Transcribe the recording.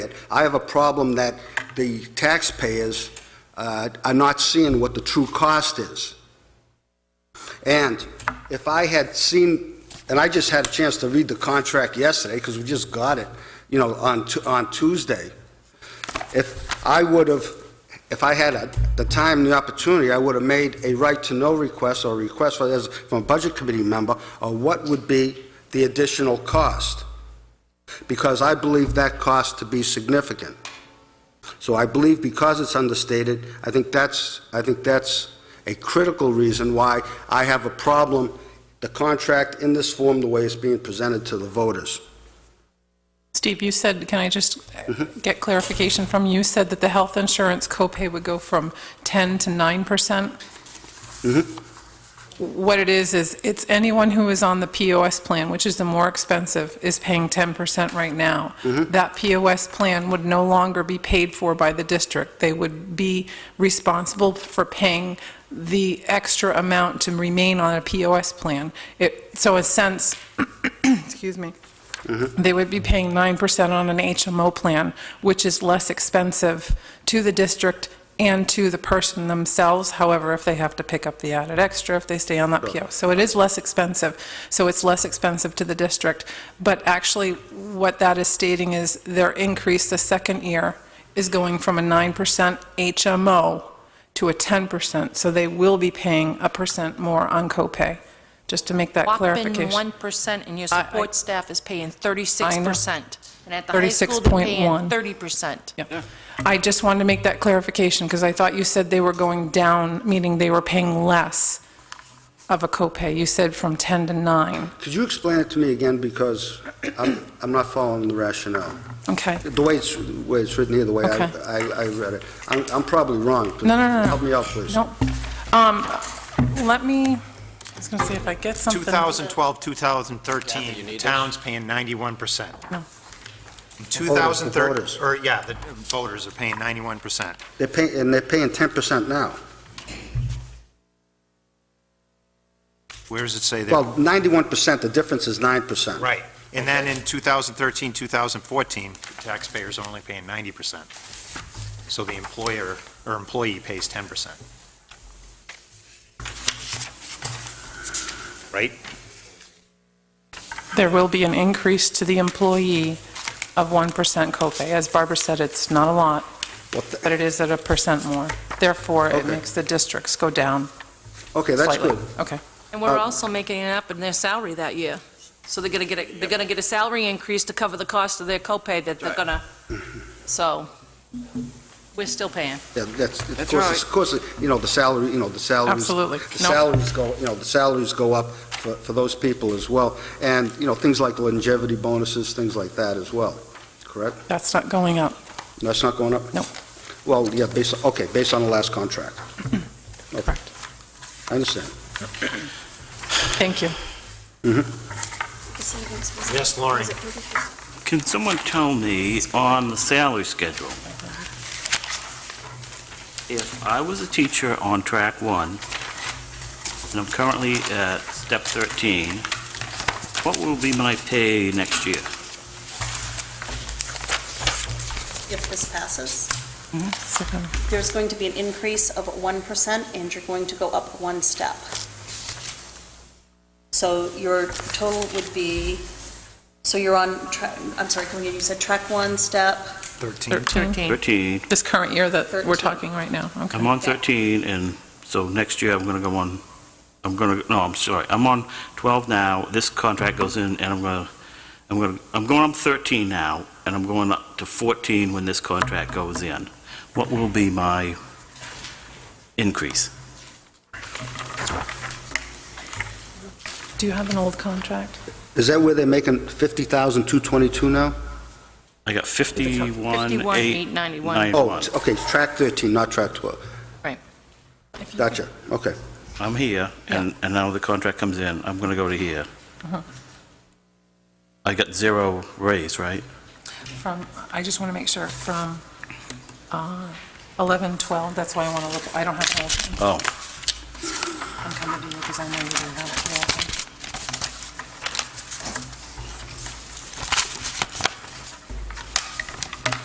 it. I have a problem that the taxpayers uh, are not seeing what the true cost is. And if I had seen, and I just had a chance to read the contract yesterday, because we just got it, you know, on, Tu- on Tuesday, if I would have, if I had a- the time and the opportunity, I would have made a right-to-know request or a request for- as- from a Budget Committee member, of what would be the additional cost? Because I believe that cost to be significant. So I believe because it's understated, I think that's, I think that's a critical reason why I have a problem, the contract in this form, the way it's being presented to the voters. Steve, you said, can I just get clarification from you? You said that the health insurance copay would go from 10 to 9%? percent What it is, is it's anyone who is on the POS plan, which is the more expensive, is paying 10% right now. That POS plan would no longer be paid for by the district. They would be responsible for paying the extra amount to remain on a POS plan. It, so in a sense, excuse me, they would be paying 9% on an HMO plan, which is less expensive to the district and to the person themselves, however, if they have to pick up the added extra, if they stay on that PO. So it is less expensive, so it's less expensive to the district. But actually, what that is stating is their increase the second year is going from a 9% HMO to a 10%, so they will be paying a percent more on copay, just to make that clarification. Whopping 1%, and your I- I- support staff is paying 36%. And at the high school, they're paying 36.1. 30%. Yeah. I just wanted to make that clarification, because I thought you said they were going down, meaning they were paying less of a copay. You said from 10 to 9. Could you explain it to me again, because I'm, I'm not following the rationale? Okay. The way it's, the way it's written here, the way I, Okay. I I read it. I'm, I'm probably wrong. No, no, no, no. Help me out, please. Nope. Um, Let me, I was going to see if I get something. 2012, 2013, towns paying 91%. No. In 2013, voters. or, yeah, the voters are paying 91%. They're paying, and they're paying 10% now. Where does it say Well, that? 91%, the difference is 9%. Right. And then in 2013, 2014, taxpayers are only paying 90%. So the employer, or employee pays 10%. Right? There will be an increase to the employee of 1% copay. As Barbara said, it's not a lot, What the- but it is at a percent more. Therefore, it Okay. makes the districts go down Okay, that's slightly. good. Okay. And Oh. we're Uh, also making it up in their salary that year. So they're going to get, a- they're going to get a salary increase to cover the cost of their copay that they're going to, so we're still paying. Yeah, that's, of course, of course, you know, the salary, you know, the salaries. Absolutely. The No. salaries go, you know, the salaries go up for, for those people as well. And, you know, things like longevity bonuses, things like that as well, correct? That's not going up. That's not going up? No. Well, yeah, based, okay, based on the last contract. Okay. Correct. I understand. Thank you. Yes, Lauren. Can someone tell me on the salary schedule? If I was a teacher on track one, and I'm currently at step 13, what will be my pay next year? if this passes. Mm-hmm. So, um, There's going to be an increase of 1%, and you're going to go up one step. So your total would be, so you're on, track. I'm sorry, can we- you said track one, step, 13. 13, 13, this current year that we're 13. talking right now, I'm okay. on 13, and so next year I'm going to go on, I'm going to, no, I'm sorry, I'm on 12 now, this contract goes in, and I'm going to, I'm going to, I'm going on 13 now, and I'm going up to 14 when this contract goes in. What will be my increase? Do you have an old contract? Is that where they're making 50,222 now? I got 51, 51, 8, 891. 91. Oh, t- okay, track 13, not track 12. If you- Gotcha, okay. I'm here, and, and now the contract comes in, I'm going to go to here. I got zero raise, right? From, I just want to make sure, from uh, 11, 12, that's why I want to look, I don't have an old, Oh, I'm coming to you because I know you don't have an old.